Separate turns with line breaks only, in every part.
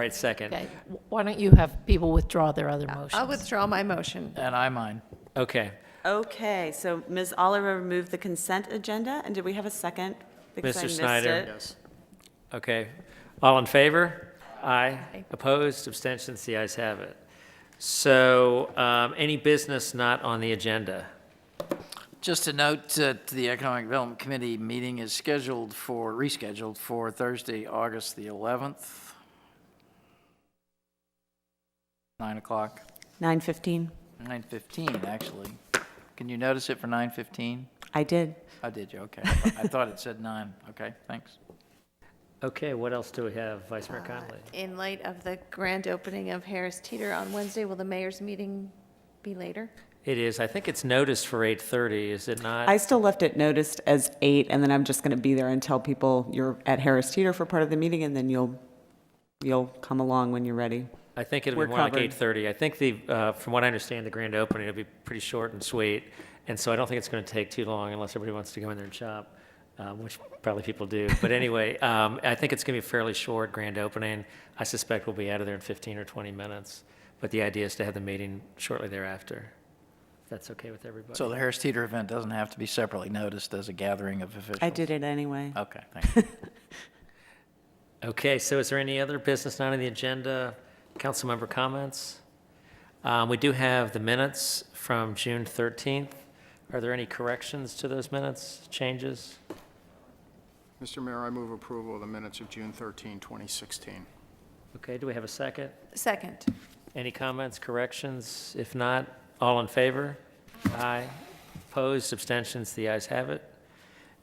right, second.
Okay, why don't you have people withdraw their other motions?
I'll withdraw my motion.
And I mine.
Okay.
Okay, so Ms. Oliver removed the consent agenda, and did we have a second? Because I
Mr.
missed
Snyder?
it.
Okay. All in favor? Aye. Opposed, abstentions, the ayes have it. So um, any business not on the agenda?
Just a note that the Economic Development Committee meeting is scheduled for, rescheduled for Thursday, August the 11th, 9 o'clock,
9:15.
9:15, actually. Can you notice it for 9:15?
I did.
I did you? Okay. I thought it said 9. Okay, thanks.
Okay, what else do we have, Vice Mayor Conley?
In light of the grand opening of Harris Teeter on Wednesday, will the mayor's meeting be later?
It is, I think it's noticed for 8:30, is it
I
not?
still left it noticed as eight, and then I'm just going to be there and tell people you're at Harris Teeter for part of the meeting, and then you'll, you'll come along when you're ready.
I think it'll
We're
be more like
covered.
8:30. I think the, uh, from what I understand, the grand opening will be pretty short and sweet, and so I don't think it's going to take too long unless everybody wants to go in there and shop, uh, which probably people do. But anyway, um, I think it's going to be a fairly short grand opening. I suspect we'll be out of there in 15 or 20 minutes, but the idea is to have the meeting shortly thereafter, if that's okay with everybody.
So the Harris Teeter event doesn't have to be separately noticed as a gathering of officials?
I did it anyway.
Okay, thanks.
Okay, so is there any other business not on the agenda? Council member comments? Um, We do have the minutes from June 13th. Are there any corrections to those minutes, changes?
Mr. Mayor, I move approval of the minutes of June 13, 2016.
Okay, do we have a second?
Second.
Any comments, corrections? If not, all in favor? Aye. Opposed, abstentions, the ayes have it.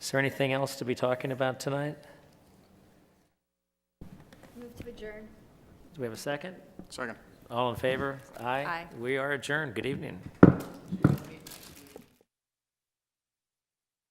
Is there anything else to be talking about tonight?
Move to adjourn.
Do we have a second?
Second.
All in favor?
Aye.
We are adjourned. Good evening.